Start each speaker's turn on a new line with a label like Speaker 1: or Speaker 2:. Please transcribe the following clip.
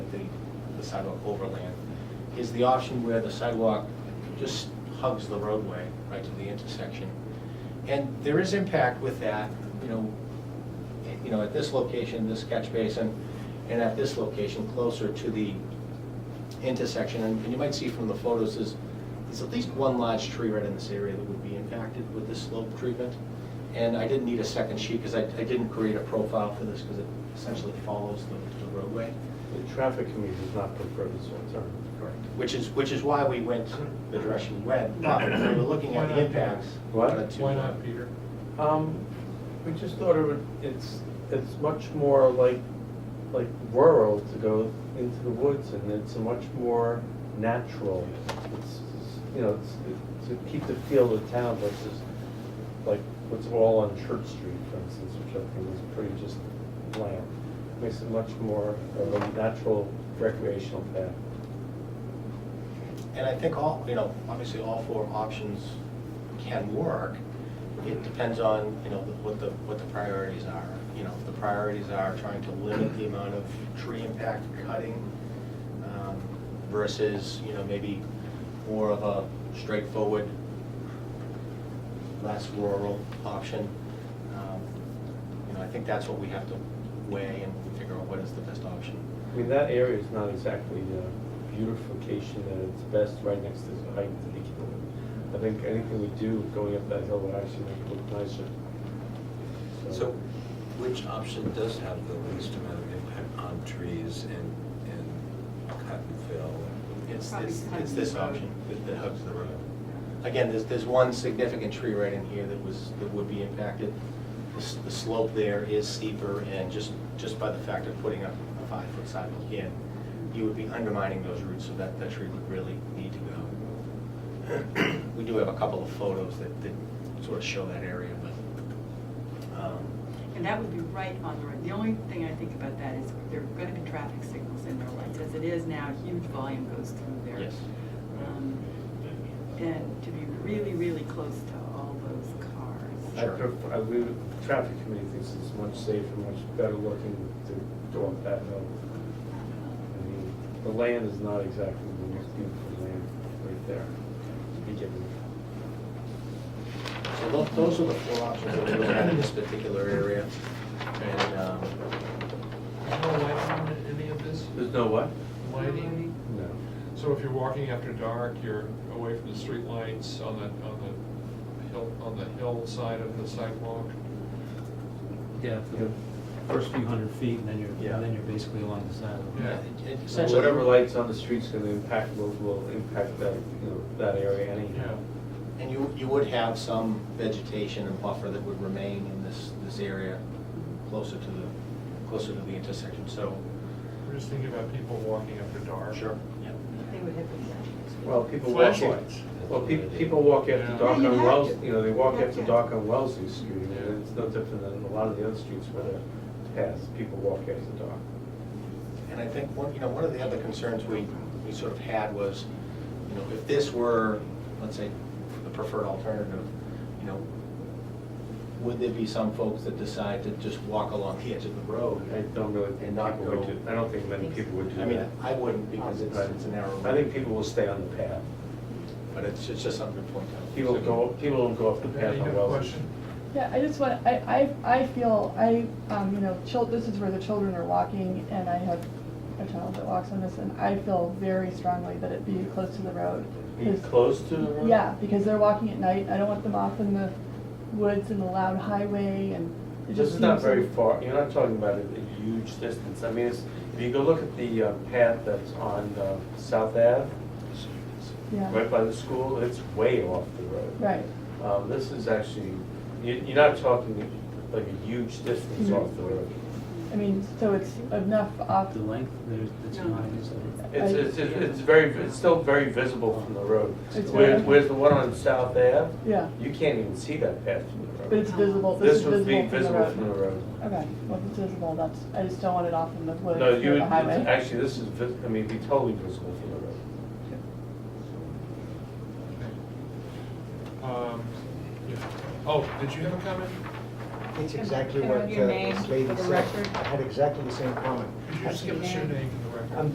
Speaker 1: the sidewalk overland, is the option where the sidewalk just hugs the roadway right to the intersection. And there is impact with that, you know, you know, at this location, this catch basin, and at this location, closer to the intersection. And and you might see from the photos, there's, there's at least one large tree right in this area that would be impacted with this slope treatment. And I didn't need a second sheet because I, I didn't create a profile for this because it essentially follows the the roadway.
Speaker 2: The traffic committee does not prefer this one, sorry.
Speaker 1: Correct. Which is, which is why we went the direction we went, but we were looking at the impacts.
Speaker 2: What?
Speaker 1: uh, to-
Speaker 3: Why not, Peter?
Speaker 2: Um, we just thought it would, it's, it's much more like, like rural to go into the woods and it's much more natural. It's, it's, you know, it's, it- to keep the feel of town versus like what's all on Church Street, for instance, which I think is pretty just bland. Makes it much more of a natural recreational path.
Speaker 1: And I think all, you know, obviously all four options can work. It depends on, you know, what the, what the priorities are. You know, if the priorities are trying to limit the amount of tree impact cutting um, versus, you know, maybe more of a straightforward, less rural option. um, You know, I think that's what we have to weigh and figure out what is the best option.
Speaker 2: I mean, that area is not exactly uh, beautification at its best right next to the height to begin with. I think anything we do going up that hill would actually make it look nicer.
Speaker 4: So which option does have the least amount of impact on trees and, and Cottonville?
Speaker 1: It's,
Speaker 5: Probably
Speaker 1: it's,
Speaker 5: hugs
Speaker 1: it's
Speaker 5: the
Speaker 1: this
Speaker 5: road.
Speaker 1: option that- that hugs the road. Again, there's, there's one significant tree right in here that was, that would be impacted. The s- The slope there is steeper, and just, just by the fact of putting up a five-foot sidewalk in, you would be undermining those roots, so that, that tree would really need to go. We do have a couple of photos that, that sort of show that area, but, um,
Speaker 5: And that would be right on the road. The only thing I think about that is there are going to be traffic signals in there, like, as it is now, huge volume goes through there.
Speaker 1: Yes.
Speaker 5: Um, And to be really, really close to all those cars.
Speaker 2: I prefer, I believe the traffic committee thinks it's much safer, much better looking to go up that hill.
Speaker 5: Um,
Speaker 2: I mean, the land is not exactly the most beautiful land right there to begin with.
Speaker 1: So tho- those are the four options that we looked at in this particular area. And, um,
Speaker 3: There's no lighting on it- any of this?
Speaker 2: There's no what?
Speaker 3: Lighting?
Speaker 2: No.
Speaker 3: So if you're walking after dark, you're away from the street lights on the, on the hill, on the hillside of the sidewalk?
Speaker 6: Yeah, for the first few hundred feet, and then you're,
Speaker 1: Yeah.
Speaker 6: and then you're basically along the side of the
Speaker 3: Yeah.
Speaker 6: road.
Speaker 1: it- it
Speaker 2: So
Speaker 1: essentially.
Speaker 2: Whatever lights on the street's gonna impact, will, will impact that, you know, that area anyhow.
Speaker 1: And you, you would have some vegetation and buffer that would remain in this, this area closer to the, closer to the intersection, so.
Speaker 3: We're just thinking about people walking after dark.
Speaker 1: Yeah.
Speaker 5: They would have been.
Speaker 2: Well, people walk,
Speaker 3: Flashing lights.
Speaker 2: well, pe- people walk after
Speaker 3: Yeah.
Speaker 2: dark
Speaker 5: Yeah, you
Speaker 2: on
Speaker 5: have
Speaker 2: Wells,
Speaker 5: to.
Speaker 2: you know, they walk
Speaker 5: You have
Speaker 2: after
Speaker 5: to.
Speaker 2: dark on Wellesley Street, and it's no different than a lot of the other streets where they're past, people walk after dark.
Speaker 1: And I think, one, you know, one of the other concerns we, we sort of had was, you know, if this were, let's say, the preferred alternative, you know, would there be some folks that decide to just walk along the edge of the road?
Speaker 2: I don't really
Speaker 1: And
Speaker 2: think
Speaker 1: not
Speaker 2: people would
Speaker 1: go-
Speaker 2: do, I don't think many people would do
Speaker 1: I mean,
Speaker 2: that.
Speaker 1: I wouldn't because it's, it's a narrow
Speaker 2: I think
Speaker 1: road,
Speaker 2: people will stay on the path.
Speaker 1: but it's, it's just something to point out.
Speaker 2: People go, people don't go off the path
Speaker 3: Any
Speaker 2: on
Speaker 3: good
Speaker 2: Wellesley.
Speaker 3: question?
Speaker 7: Yeah, I just want, I, I, I feel, I, um, you know, chil, this is where the children are walking, and I have a child that walks on this, and I feel very strongly that it be close to the road.
Speaker 2: Be
Speaker 7: 'Cause-
Speaker 2: close to the road?
Speaker 7: Yeah, because they're walking at night, I don't want them off in the woods and the loud highway, and it just
Speaker 2: This is
Speaker 7: seems.
Speaker 2: not very far, you're not talking about a a huge distance. I mean, it's, if you go look at the uh, path that's on uh, South Ave,
Speaker 7: Yeah,
Speaker 2: right by the school, it's way off the road.
Speaker 7: right,
Speaker 2: Um, This is actually, you- you're not talking like a huge distance
Speaker 7: Mhm.
Speaker 2: off the road.
Speaker 7: I mean, so it's enough off,
Speaker 6: The length, there's, it's
Speaker 5: No.
Speaker 6: not, it's a-
Speaker 2: It's, it's, it's it's very, it's still very visible from the road.
Speaker 7: It's
Speaker 2: Whereas,
Speaker 7: very-
Speaker 2: whereas the one on South Ave,
Speaker 7: yeah,
Speaker 2: you can't even see that path from the road.
Speaker 7: but it's visible, this is
Speaker 2: would be
Speaker 7: visible
Speaker 2: visible from
Speaker 7: from the road.
Speaker 2: the road.
Speaker 7: Okay, well, if it's visible, that's, I just don't want it off in the woods
Speaker 2: No,
Speaker 7: or
Speaker 2: you would,
Speaker 7: the highway.
Speaker 2: actually, this is, vis- I mean, it'd be totally visible from the road.
Speaker 3: Um, yeah. Oh, did you have a comment?
Speaker 8: It's exactly
Speaker 5: Can I
Speaker 8: what
Speaker 5: have
Speaker 8: uh,
Speaker 5: your name
Speaker 8: this lady
Speaker 5: for the
Speaker 8: said.
Speaker 5: record?
Speaker 8: I had exactly the same comment.
Speaker 3: Could you just give us your name and